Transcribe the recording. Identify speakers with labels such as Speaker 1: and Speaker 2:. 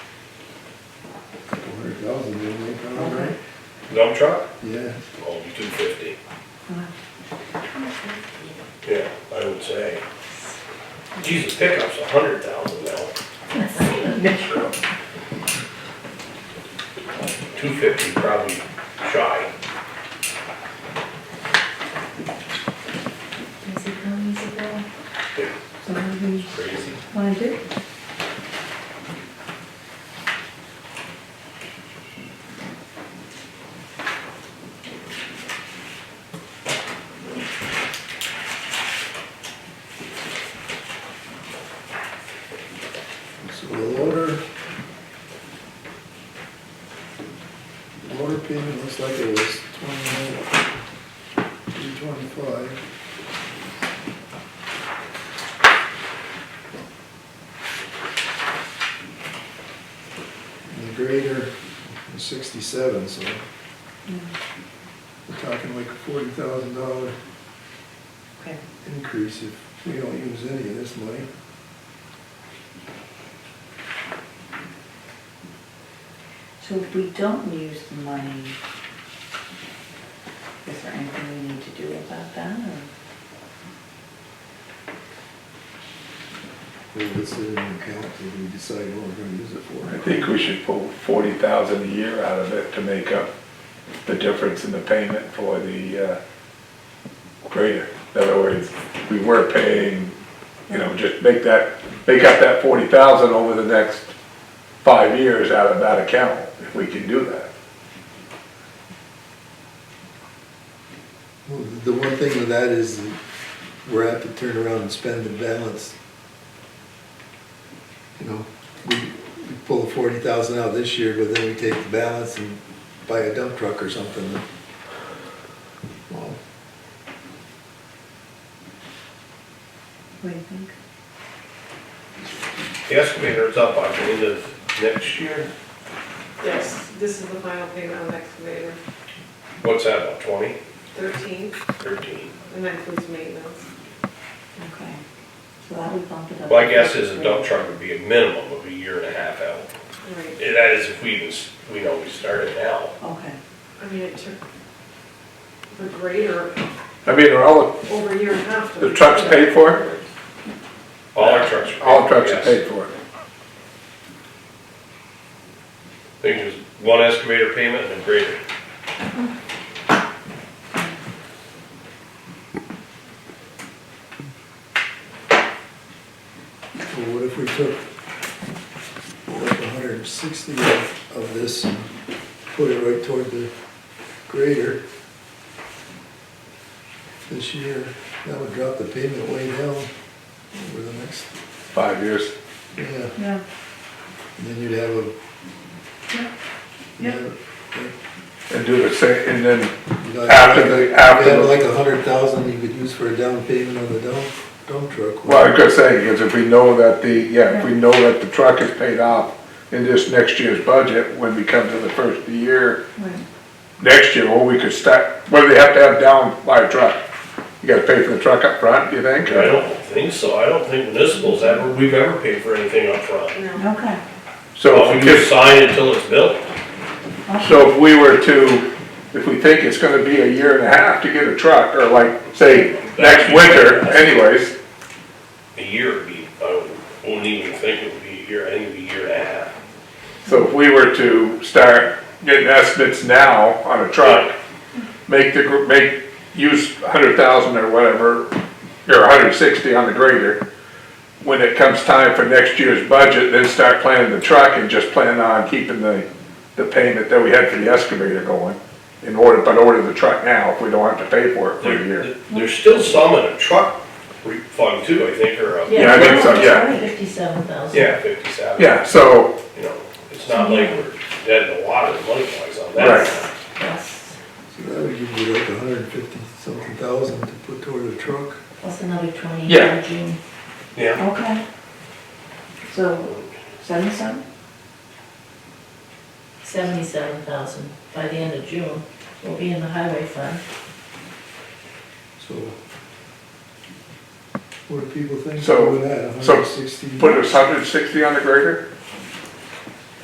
Speaker 1: thousand, didn't we, Tom, right?
Speaker 2: Dump truck?
Speaker 1: Yeah,
Speaker 2: Oh, two fifty. Yeah, I would say. Jesus, pickup's a hundred thousand now. Two fifty probably shy.
Speaker 3: Easy come, easy go.
Speaker 2: Yeah,
Speaker 3: So what do you
Speaker 2: it's Crazy.
Speaker 3: wanna do?
Speaker 1: so the loader. Loader payment looks like it was twenty-nine, three twenty-five. And the grader was sixty-seven, so
Speaker 3: Yeah.
Speaker 1: we're talking like a forty thousand dollar
Speaker 3: Okay.
Speaker 1: increase if we don't use any of this money.
Speaker 3: So if we don't use the money, is there anything we need to do about that or?
Speaker 1: We'll just sit in an account till we decide what we're gonna use it for.
Speaker 4: I think we should pull forty thousand a year out of it to make up the difference in the payment for the, uh, grader. In other words, we were paying, you know, just make that, make up that forty thousand over the next five years out of that account, if we can do that.
Speaker 1: Well, The one thing with that is that we're apt to turn around and spend the balance. You know, we we pull the forty thousand out this year, but then we take the balance and buy a dump truck or something. Well,
Speaker 3: What do you think?
Speaker 2: The excavator's up on the end of next year.
Speaker 5: Yes, this is the final payment on the excavator,
Speaker 2: What's that, about twenty,
Speaker 5: thirteen,
Speaker 2: thirteen?
Speaker 5: and that includes maintenance.
Speaker 3: Okay. So that would bump it up.
Speaker 2: My guess is a dump truck would be a minimum of a year and a half out.
Speaker 5: Right,
Speaker 2: And That is if we even, s- we know we started now.
Speaker 3: Okay.
Speaker 5: I mean, it took the grader
Speaker 4: I mean, are all,
Speaker 5: over a year and a half. to-
Speaker 4: The truck's paid for?
Speaker 2: All our trucks are paid.
Speaker 4: all trucks are
Speaker 2: yes.
Speaker 4: paid for it?
Speaker 2: I think there's one excavator payment and a grader.
Speaker 1: well, what if we took like a hundred and sixty of of this and put it right toward the grader this year? That would drop the payment way down over the next,
Speaker 4: Five years.
Speaker 1: yeah.
Speaker 3: Yeah.
Speaker 1: And then you'd have a.
Speaker 3: Yeah.
Speaker 1: Yeah.
Speaker 4: And do the same, and then
Speaker 1: You'd like-
Speaker 4: After the-
Speaker 1: you'd
Speaker 4: after
Speaker 1: have
Speaker 4: the-
Speaker 1: like a hundred thousand you could use for a down payment on the dump, dump truck.
Speaker 4: Well, I could say, because if we know that the, yeah, if we know that the truck is paid off in this next year's budget, when we come to the first of the year,
Speaker 3: Right.
Speaker 4: next year, well, we could start, what do they have to have down by a truck? You gotta pay for the truck up front, you think?
Speaker 2: I don't think so, I don't think municipals ever, we've ever paid for anything upfront.
Speaker 5: No,
Speaker 3: Okay.
Speaker 4: So
Speaker 2: Well,
Speaker 4: if
Speaker 2: we
Speaker 4: we
Speaker 2: just
Speaker 4: just,
Speaker 2: sign until it's built.
Speaker 4: so if we were to, if we think it's gonna be a year and a half to get a truck, or like, say, next winter anyways,
Speaker 2: A year would be, I wouldn't- wouldn't even think it would be a year, I think it'd be a year and a half.
Speaker 4: so if we were to start getting estimates now on a truck, make the, gr- make, use a hundred thousand or whatever, or hundred and sixty on the grader. When it comes time for next year's budget, then start planning the truck and just plan on keeping the, the payment that we had for the excavator going. In order, but order the truck now if we don't have to pay for it for a
Speaker 2: There-
Speaker 4: year.
Speaker 2: there- There's still some in a truck refund too, I think, or a,
Speaker 4: Yeah, I think so, yeah.
Speaker 6: Fifty-seven thousand.
Speaker 2: yeah, fifty-seven,
Speaker 4: Yeah, so,
Speaker 2: you know, it's not like we're dead in the water money wise on
Speaker 4: Right.
Speaker 2: that.
Speaker 6: Plus,
Speaker 1: So that would give you like a hundred and fifty something thousand to put toward the truck.
Speaker 6: plus another twenty
Speaker 4: Yeah.
Speaker 6: for June.
Speaker 2: Yeah.
Speaker 3: Okay. So seventy-seven?
Speaker 6: Seventy-seven thousand by the end of June will be in the highway fund.
Speaker 1: So. What do people think
Speaker 4: So-
Speaker 1: of that, a
Speaker 4: so
Speaker 1: hundred and sixty?
Speaker 4: put a hundred and sixty on the grader?